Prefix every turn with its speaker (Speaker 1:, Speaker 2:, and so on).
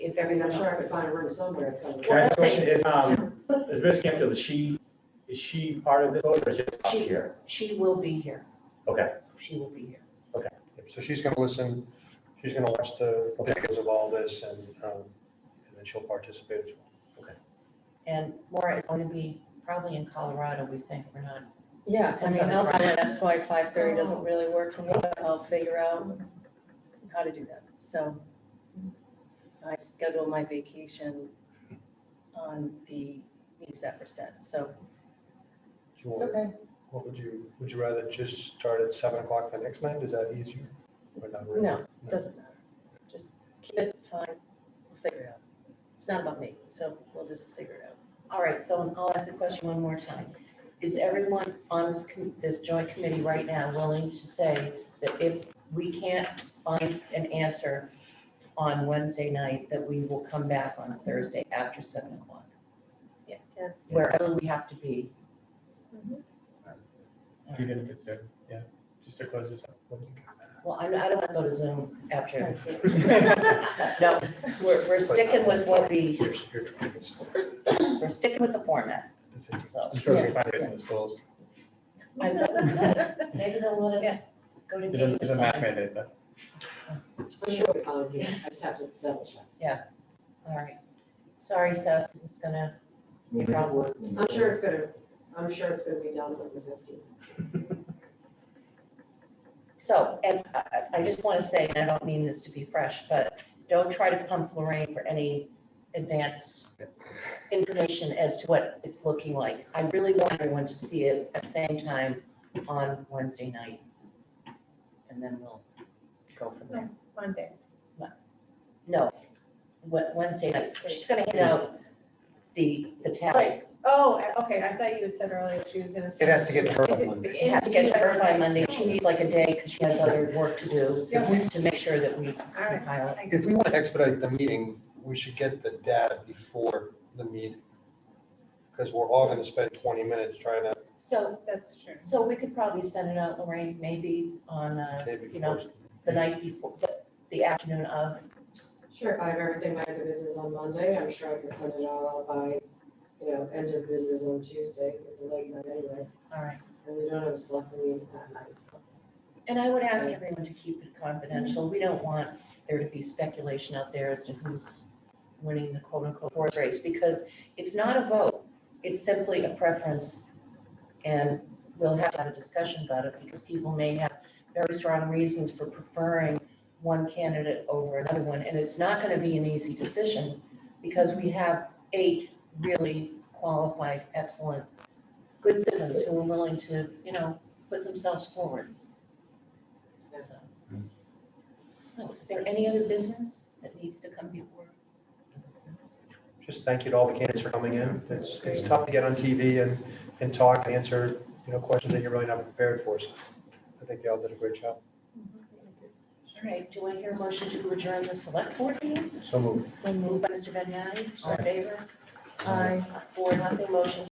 Speaker 1: think, I mean, I'm sure I could find a room somewhere, so.
Speaker 2: Can I ask a question? Is, um, is Miss Canfield, is she, is she part of this vote or is she just up
Speaker 3: She-
Speaker 2: here?
Speaker 3: She will be here.
Speaker 2: Okay.
Speaker 3: She will be here.
Speaker 4: So she's going to listen, she's going to watch the videos of all this and, um, and then she'll participate as well.
Speaker 3: And Laura is going to be probably in Colorado, we think. We're not,
Speaker 5: Yeah, I
Speaker 3: Depends
Speaker 5: mean,
Speaker 3: on the
Speaker 5: I'll,
Speaker 3: project.
Speaker 5: that's why five thirty doesn't really work for me, but I'll figure out how to do that, so. I schedule my vacation on the meetings that were set, so
Speaker 4: Do you
Speaker 5: it's
Speaker 4: want-
Speaker 5: okay.
Speaker 4: What would you, would you rather just start at seven o'clock the next night? Is that easier? Or not really?
Speaker 5: No, it doesn't matter. Just keep it, it's fine. We'll figure it out. It's not about me, so we'll just figure it out.
Speaker 3: all right, so I'll ask the question one more time. Is everyone on this, com- this joint committee right now willing to say that if we can't find an answer on Wednesday night, that we will come back on Thursday after seven o'clock? Yes,
Speaker 5: Yes.
Speaker 3: wherever we have to be.
Speaker 6: You didn't consider, yeah, just to close this up.
Speaker 3: Well, I'm- I don't want to go to Zoom after.
Speaker 6: All
Speaker 3: No, we're, we're sticking with what we,
Speaker 4: You're, you're trying to stop the
Speaker 3: we're sticking with the format,
Speaker 4: 15.
Speaker 3: so.
Speaker 6: It's supposed to be fundraising in the schools.
Speaker 3: I know. Maybe they'll let us go to
Speaker 6: It doesn't,
Speaker 3: games.
Speaker 6: it
Speaker 3: or
Speaker 6: doesn't mask
Speaker 3: something.
Speaker 6: mandate, but
Speaker 1: I'm sure we found here, I just have to double check.
Speaker 3: All right. Sorry, Seth, this is gonna be a
Speaker 2: Mm-hmm.
Speaker 3: problem.
Speaker 1: I'm sure it's gonna, I'm sure it's gonna be done on the fifteenth.
Speaker 3: So, and I, I- I just want to say, and I don't mean this to be fresh, but don't try to pump Lorraine for any advanced information as to what it's looking like. I really want everyone to see it at the same time on Wednesday night. And then we'll go from there.
Speaker 5: Monday.
Speaker 3: No, Wed- Wednesday night. She's gonna hand out the, the tally.
Speaker 5: Oh, I- okay, I thought you had said earlier she was gonna.
Speaker 4: It has to get
Speaker 5: send
Speaker 4: turned
Speaker 5: it
Speaker 4: on
Speaker 5: to-
Speaker 4: Monday.
Speaker 3: It has to get to her by Monday. She needs like a day because she has other work to do
Speaker 4: If we,
Speaker 3: to make sure that we
Speaker 5: All right.
Speaker 3: compile it.
Speaker 4: if we want to expedite the meeting, we should get the data before the meeting. Because we're all going to spend twenty minutes trying to,
Speaker 3: So,
Speaker 5: That's true.
Speaker 3: so we could probably send it out, Lorraine, maybe on uh,
Speaker 4: day
Speaker 3: You know,
Speaker 4: before.
Speaker 3: the night before, the- the afternoon of.
Speaker 1: Sure, if I have everything by the business on Monday, I'm sure I can send it all out by, you know, end of business on Tuesday, it's a late night anyway,
Speaker 3: All right.
Speaker 1: and we don't have a select meeting that night, so.
Speaker 3: And I would ask everyone to keep it confidential. We don't want there to be speculation out there as to who's winning the quote unquote horse race because it's not a vote. It's simply a preference. And we'll have to have a discussion about it because people may have very strong reasons for preferring one candidate over another one. And it's not going to be an easy decision because we have eight really qualified, excellent, good citizens who are willing to, you know, put themselves forward. So, So is there any other business that needs to come before?
Speaker 4: Just thank you to all the candidates for coming in. It's, it's tough to get on TV and, and talk and answer, you know, questions that you're really not prepared for. So I think y'all did a great job.
Speaker 3: All right, do I hear a motion to adjourn the select board meeting?
Speaker 4: So moved.
Speaker 3: Moved by Mr. Vagnani, all in favor? Aye. Four, nothing, motion